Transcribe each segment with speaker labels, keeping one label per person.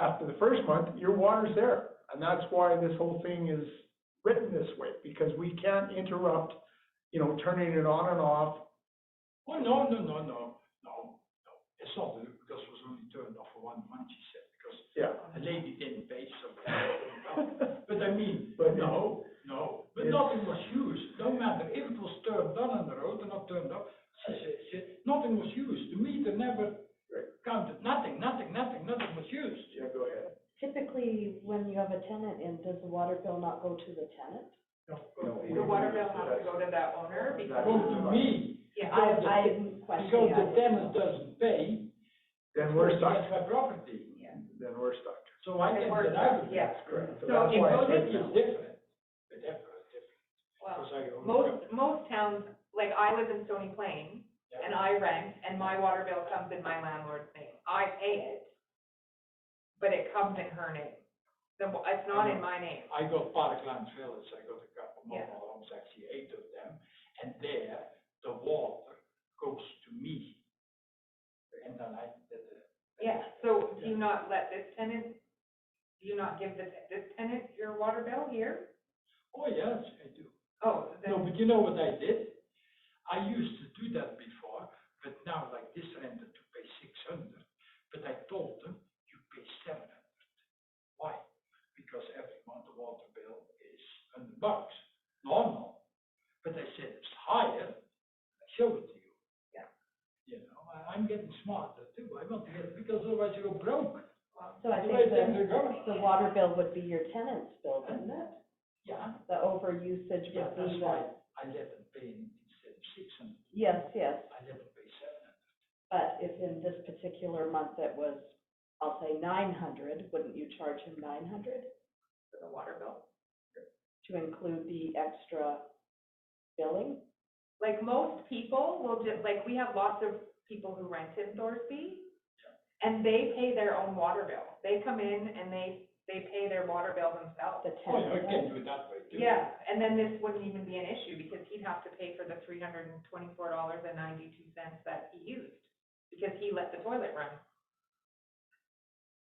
Speaker 1: after the first month, your water's there. And that's why this whole thing is written this way, because we can't interrupt, you know, turning it on and off.
Speaker 2: Oh, no, no, no, no, no, no. It's not, that this was only turned off for one month, she said, because
Speaker 1: Yeah.
Speaker 2: a lady didn't pay something. But I mean,
Speaker 1: But-
Speaker 2: no, no, but
Speaker 1: Yes.
Speaker 2: nothing was used, no matter if it was turned on on the road or not turned off, she said, she said, nothing was used, the meter never
Speaker 1: Right.
Speaker 2: counted, nothing, nothing, nothing, nothing was used.
Speaker 1: Yeah, go ahead.
Speaker 3: Typically, when you have a tenant in, does the water bill not go to the tenant?
Speaker 4: The water bill has to go to the owner because,
Speaker 2: Come to me,
Speaker 3: Yeah,
Speaker 2: Because the-
Speaker 3: I, I'm
Speaker 2: because
Speaker 3: questioning
Speaker 2: the
Speaker 3: that.
Speaker 2: tenant doesn't pay,
Speaker 1: Then we're
Speaker 2: that's
Speaker 1: stuck,
Speaker 2: my property,
Speaker 4: yeah.
Speaker 1: then we're stuck.
Speaker 2: so I can't
Speaker 4: It works,
Speaker 2: get out of it.
Speaker 4: yeah.
Speaker 1: Correct. So
Speaker 4: So
Speaker 1: that's
Speaker 4: it
Speaker 1: why I
Speaker 4: goes
Speaker 1: said
Speaker 2: It's different, but that's different,
Speaker 4: Well,
Speaker 2: because I own.
Speaker 4: most, most towns, like I live in Stony Plain
Speaker 2: Yeah.
Speaker 4: and I rent and my water bill comes in my landlord's name. I pay it, but it comes in her name. The, wa- it's not in my name.
Speaker 2: I got Parkland Village, I got a couple more
Speaker 4: Yeah.
Speaker 2: homes, actually eight of them, and there, the water goes to me. And then I, the, the.
Speaker 4: Yeah, so do you not let this tenant, do you not give this, this tenant your water bill here?
Speaker 2: Oh, yes, I do.
Speaker 4: Oh,
Speaker 2: No,
Speaker 4: then,
Speaker 2: but you know what I did? I used to do that before, but now like this renter to pay six hundred, but I told them, you pay seven hundred. Why? Because every month the water bill is hundred bucks, normal. But I said, it's higher, I show it to you.
Speaker 4: Yeah.
Speaker 2: You know, I, I'm getting smarter too, I want to get, because otherwise you go broke.
Speaker 3: So
Speaker 2: Otherwise
Speaker 3: I think
Speaker 2: then
Speaker 3: the,
Speaker 2: you go-
Speaker 3: the water bill would be your tenant's bill, wouldn't it?
Speaker 2: Yeah,
Speaker 3: The overusage
Speaker 2: yeah,
Speaker 3: would
Speaker 2: that's
Speaker 3: be
Speaker 2: why
Speaker 3: the,
Speaker 2: I let them pay instead of six hundred,
Speaker 3: yes, yes.
Speaker 2: I let them pay seven hundred.
Speaker 3: But if in this particular month it was, I'll say nine hundred, wouldn't you charge him nine hundred
Speaker 4: the water bill.
Speaker 3: to include the extra billing?
Speaker 4: like most people will just, like, we have lots of people who rent in Thorsby, and they pay their own water bill. They come in and they, they pay their water bill themselves.
Speaker 3: The
Speaker 2: Oh, yeah, I
Speaker 3: tenant,
Speaker 2: can
Speaker 3: does?
Speaker 2: do it that way too.
Speaker 4: Yeah, and then this wouldn't even be an issue, because he'd have to pay for the three hundred and twenty-four dollars and ninety-two cents that he used, because he let the toilet run.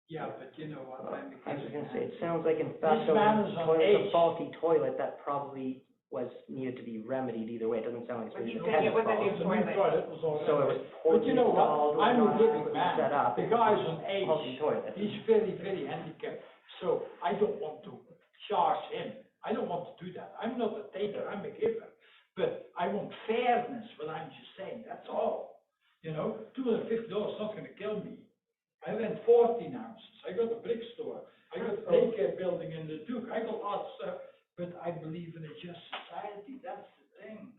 Speaker 2: Yeah, but you know what, I'm.
Speaker 5: I was gonna say, it sounds like in
Speaker 2: This
Speaker 5: fact, though,
Speaker 2: man is on
Speaker 5: toilet-
Speaker 2: age.
Speaker 5: it's a faulty toilet that probably was, needed to be remedied either way, it doesn't sound like it's
Speaker 4: But
Speaker 5: really
Speaker 4: he's
Speaker 5: the
Speaker 4: gonna get with a
Speaker 5: tenant's
Speaker 4: new
Speaker 5: fault.
Speaker 4: toilet.
Speaker 2: was all
Speaker 5: So it
Speaker 2: right.
Speaker 5: was poorly
Speaker 2: But you know what?
Speaker 5: installed, was
Speaker 2: I'm a
Speaker 5: not
Speaker 2: big
Speaker 5: adequately
Speaker 2: man.
Speaker 5: set up.
Speaker 2: The
Speaker 5: It
Speaker 2: guy's
Speaker 5: was
Speaker 2: an
Speaker 5: a
Speaker 2: age.
Speaker 5: Faulty toilet.
Speaker 2: He's very, very handicapped, so I don't want to charge him. I don't want to do that. I'm not a taker, I'm a giver. But I want fairness, what I'm just saying, that's all. You know, two hundred and fifty dollars is not gonna kill me. I rent fourteen houses, I got a brick store, I got a daycare building in the Duke, I got lots of, but I believe in a just society, that's the thing.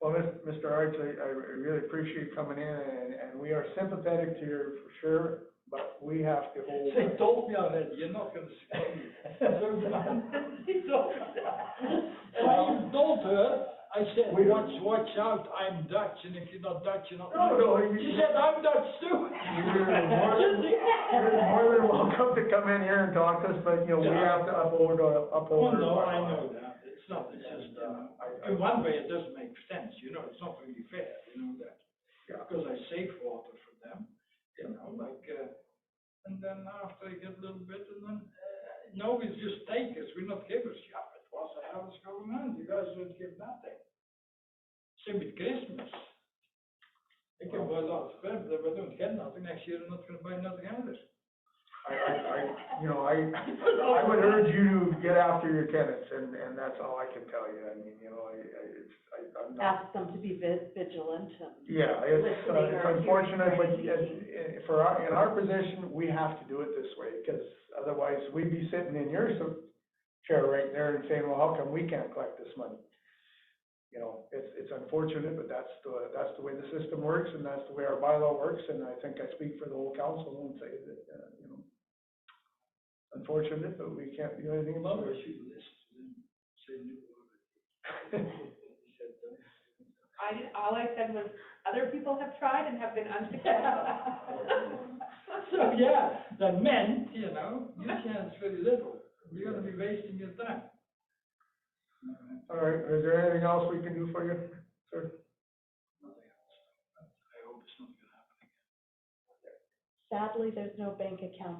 Speaker 1: Well, Mis- Mr. Arts, I, I really appreciate you coming in and, and we are sympathetic to you for sure, but we have to hold.
Speaker 2: They told me already, you're not gonna screw me. And I even told her, I said,
Speaker 1: We-
Speaker 2: watch, watch out, I'm Dutch, and if you're not Dutch, you're not.
Speaker 1: No, no, you-
Speaker 2: She said, I'm Dutch too.
Speaker 1: You're more than welcome to come in here and talk to us, but, you know, we have
Speaker 2: Yeah.
Speaker 1: to uphold our,
Speaker 2: Oh,
Speaker 1: uphold. our
Speaker 2: no, I
Speaker 1: bylaws.
Speaker 2: know that, it's not, it's just, uh, you know,
Speaker 1: uh, I- I-
Speaker 2: in one way, it doesn't make sense, you know, it's not really fair, you know that.
Speaker 1: Yeah.
Speaker 2: Because I save water for them, you know, like, uh, and then after I get a little bit, and then, uh, no, it's just takers, we're not givers, yeah, but what the hell is going on, you guys don't give nothing. Same with Christmas. I can buy lots of presents, if I don't get nothing, next year I'm not gonna buy nothing either.
Speaker 1: I, I, I, you know, I, I would urge you to get after your tenants, and, and that's all I can tell you, I mean, you know, I, I, it's, I, I'm not.
Speaker 3: ask them to be vi- vigilant and.
Speaker 1: Yeah, it's, uh,
Speaker 3: Listening
Speaker 1: it's
Speaker 3: or
Speaker 1: unfortunate, but,
Speaker 3: hearing or
Speaker 1: and, and for our, in our position, we have to do it this way, because otherwise, we'd be sitting in your s- chair right there and saying, well, how come we can't collect this money? You know, it's, it's unfortunate, but that's the, that's the way the system works, and that's the way our bylaw works, and I think I speak for the whole council and say that, uh, you know, unfortunate, but we can't do anything about
Speaker 2: Mother,
Speaker 1: it.
Speaker 2: she lists, and say, no,
Speaker 4: I, did- all I said was, other people have tried and have been unsuccessful.
Speaker 2: So, yeah, that meant, you know, you chance very little. You're gonna be wasting your time.
Speaker 1: All right, is there anything else we can do for you, sir?
Speaker 2: I hope it's not gonna happen.
Speaker 3: Sadly, there's no bank account